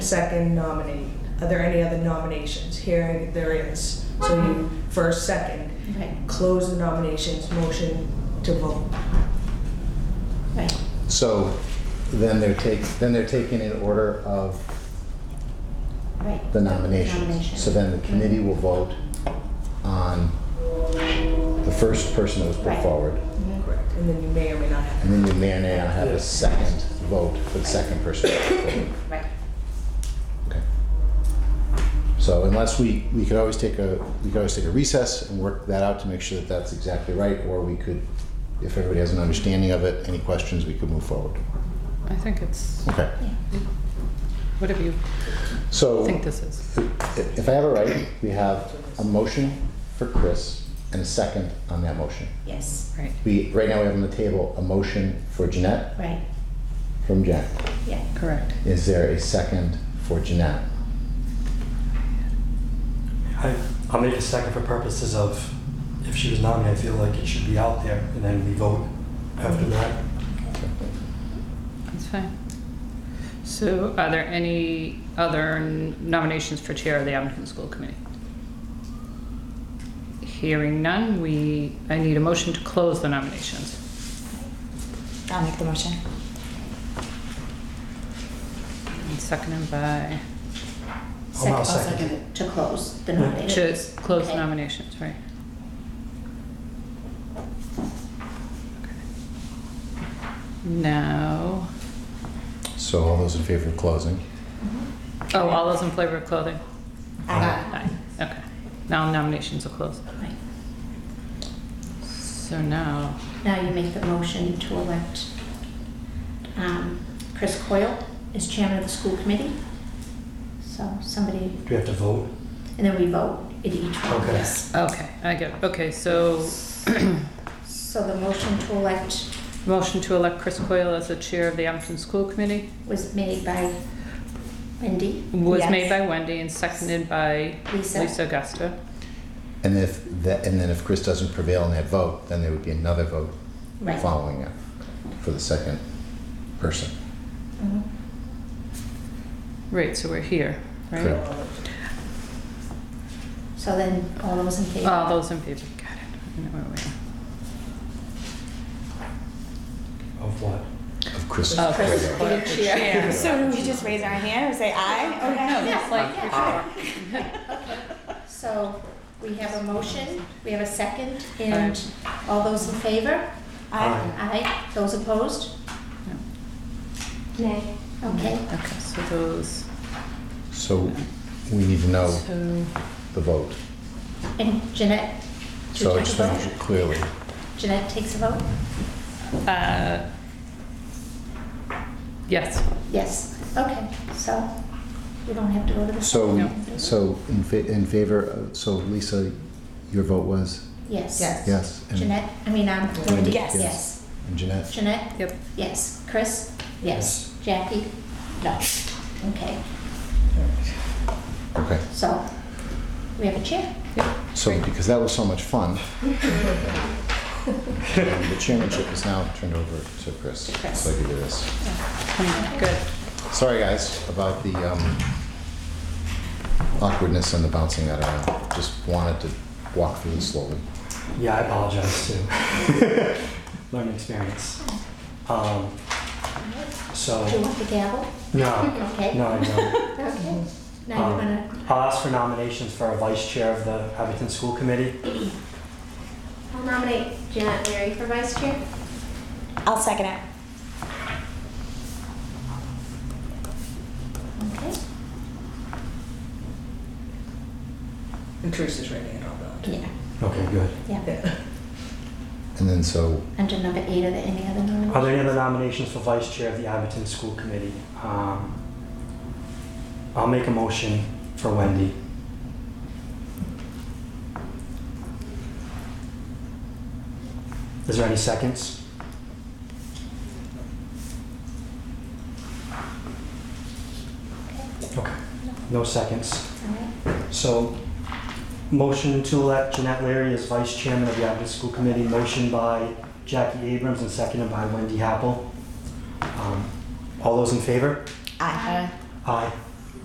second nominate. Are there any other nominations? Hearing there is. So you first, second, Right, close the nominations, motion to vote. right. So then they're take, then they're taken in order of Right. the nominations. So then the committee will vote on the first person that was put Right. forward. Correct. And then you may or may not have. And then you may or may not have a second vote for the second person. that was put forward. Right, Okay. So unless we, we could always take a, we could always take a recess and work that out to make sure that that's exactly right. Or we could, if everybody has an understanding of it, any questions, we could move forward. I think it's Okay. whatever you So. think this is. If if I have it right, we have a motion for Chris and a second on that motion. yes, Right. We, right now we have on the table a motion for Jeanette right, from Jack. yeah. Correct. Is there a second for Jeanette? I, I'll make a second for purposes of, if she was nominated, I feel like it should be out there, and then we vote after that. That's fine. So are there any other nominations for chair of the Abington School Committee? Hearing none, we, I need a motion to close the nominations. I'll make the motion. And Seconded by, I'll now second. it. To close the Yeah. to nominations. close the Okay. nominations, right? Now, So all those in favor of closing? oh, all those in favor of clothing? Uh, Aye, okay. Now nominations are closed. right. So now, Now you make the motion to elect um, Chris Coyle as chairman of the school committee. So somebody, Do we have to vote? and then we vote in each one, Okay. yes. okay, I get it. Okay, so So the motion to elect motion to elect Chris Coyle as the chair of the Abington School Committee was made by Wendy. was made by Wendy and seconded by Lisa. Lisa Augusta. And if, that, and then if Chris doesn't prevail in that vote, then there would be another vote Right. following it for the second person. Uh-huh. Mhm. Right, so we're here, right? Correct. So then all those in favor? All those in favor, got it. I know where we Of what? Of Chris. Uh, are. Oh, Chris Cuomo. Coyle for chair. So do we just raise our hand and say aye? Oh, no, that's like for Yeah. sure. So we have a motion, we have a second, and all those in favor? Aye. Aye. Those opposed? Nay. Okay. Okay, so those, So we need to know so, the vote. And Jeanette? do you So I take a just make vote? sure clearly. Jeanette takes a vote? uh, yes, Yes. Okay, so we don't have to go to the. So, No. so in fa- in favor, of- so Lisa, your vote was Yes. Yes. yes? and- Jeanette, I mean, um, Wendy, Wendy? Yes. Yes. And Jeanette? Jeanette? yep. Yes. Chris? Yes. Jackie? No. Okay, Okay, so we have a chair. so because that was so much fun. um, The chairmanship is now turned over to Chris. Chris. So I can do this. Good. Sorry, guys, about the um, awkwardness and the bouncing that around. Just wanted to walk through it slowly. Yeah, I apologize too. Learning experience. Um, Do you so, want the gavel? no, Okay. no, I don't. Okay, now you Um, wanna, I'll ask for nominations for a vice chair of the Abington School Committee. I'll nominate Janet Leary for vice chair. I'll second it. okay, And Teresa's writing it all down. yeah, Okay, good. yeah. Yeah. And then so, Under number eight, are there any other Are nominations? there any other nominations for vice chair of the Abington School Committee? Um, I'll make a motion for Wendy. Is there any seconds? Okay, no seconds. All right. So, motion to elect Jeanette Leary as vice chairman of the Abington School Committee, motion by Jackie Abrams and seconded by Wendy Happel. Um, All those in favor? Aye. Aye.